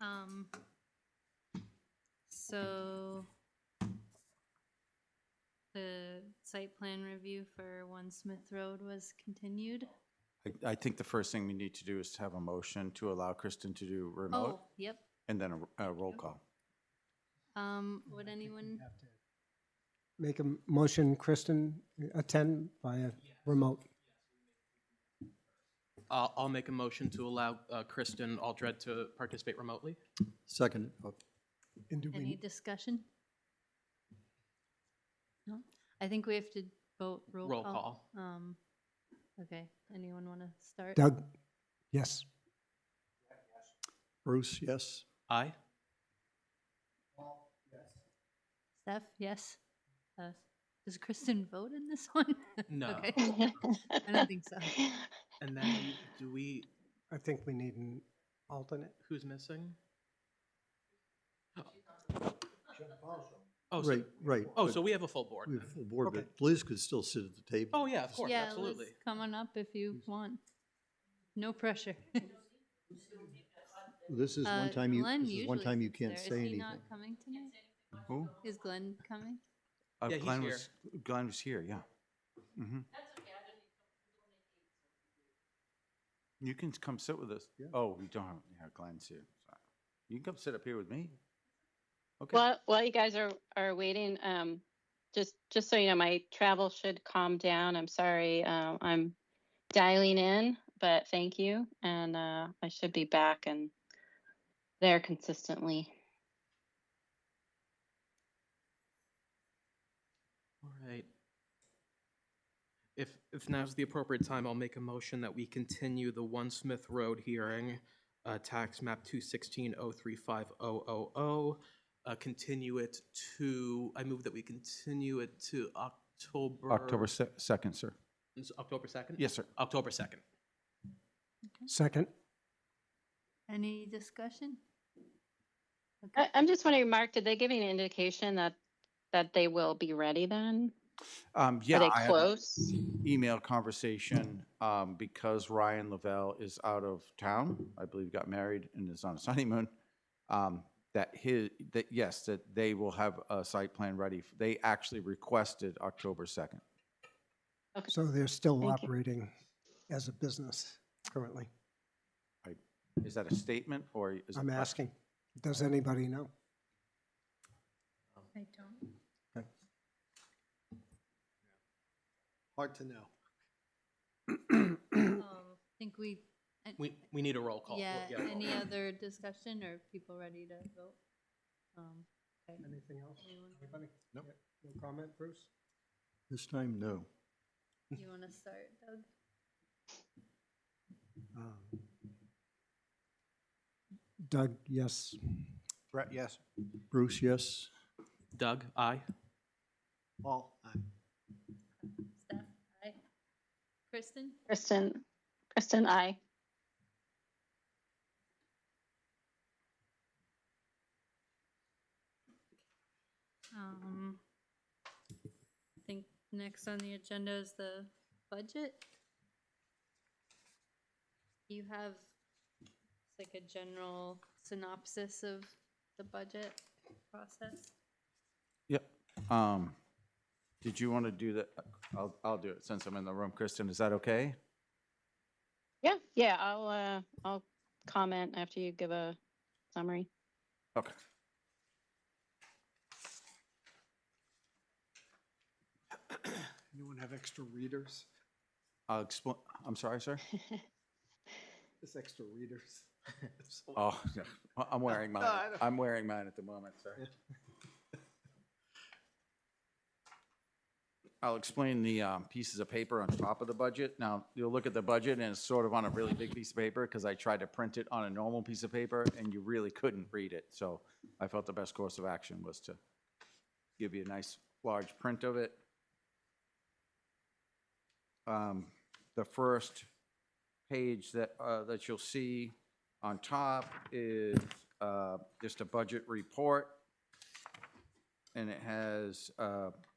Um, so the site plan review for One Smith Road was continued. I, I think the first thing we need to do is to have a motion to allow Kristen to do remote Oh, yep. and then a, a roll call. Um, would I think we'd anyone, have to Make a m- motion, Kristen, uh, attend via remote. I'll, I'll make a motion to allow uh, Kristen Aldred to participate remotely. Second. And do any we, discussion? No? I think we have to vote roll call. Roll call. Um, okay, anyone want to start? Doug, yes. Bruce, yes. Aye. Steph, yes? Uh, Does Kristen vote in this one? No. Okay. I don't think so. And then do we, I think we need an alternate. who's missing? Oh, so, Right, right. oh, but so we have a full board We then. have full board, Okay. but Liz could still sit at the table. Oh, yeah, of course, Yeah, Liz, absolutely. Come on up if you want. No pressure. This is Uh, one time you, Glenn this is one usually time you sits can't there. Is say he anything. not coming tonight? Who? Is Glenn coming? Uh, Yeah, he's Glenn here. was, Glenn was here, yeah. hmm You can come sit with us. Yeah. Oh, we don't, have yeah, Glenn's here. Sorry. You can come sit up here with me. Okay, While, while you guys are, are waiting, um, just, just so you know, my travel should calm down. I'm sorry. Um, I'm dialing in, but thank you. And, uh, I should be back and there consistently. All right. If, if now's the appropriate time, I'll make a motion that we continue the One Smith Road hearing, uh, tax map two sixteen oh three five oh oh oh. Uh, continue it to, I move that we continue it to October. October se- second, sir. It's October second? Yes, sir. October second. Second, Any discussion? I, Okay. I'm just wondering, Mark, did they give you an indication that, that they will be ready then? Um, Are yeah, they I had an close? email conversation, um, because Ryan Lavelle is out of town, I believe got married and is on his honeymoon. Um, that his, that, yes, that they will have a site plan ready. They actually requested October second. so they're still Thank you. operating as a business currently. Is that a statement or is it? I'm asking, does anybody know? I don't. Hard to know. um, Think we, and- We, we need a roll call. yeah, a roll any call. other discussion or people ready to vote? Um, okay. Anything else? Anyone? Anybody? Nope. Yeah, No comment, Bruce? This time, no. You want to start, Doug? Um, Doug, yes. Brett, yes. Bruce, yes. Doug, aye. Paul, aye. Steph, aye. Kristen? Kristen, Kristen, I. Um, I think next on the agenda is the budget. You have it's like a general synopsis of the budget process. Yep. Um, did you want to do that? I'll, I'll do it since I'm in the room. Kristen, is that okay? Yeah, yeah, I'll, uh, I'll comment after you give a summary. Okay. Anyone have extra readers? I'll explain. I'm sorry, sir. Just extra readers. Oh, yeah. Well, I'm wearing mine. I don't- I'm wearing mine at the moment, sir. I'll explain the um, pieces of paper on top of the budget. Now, you'll look at the budget and it's sort of on a really big piece of paper because I tried to print it on a normal piece of paper and you really couldn't read it. So I felt the best course of action was to give you a nice large print of it. Um, The first page that, uh, that you'll see on top is uh, just a budget report, and it has uh,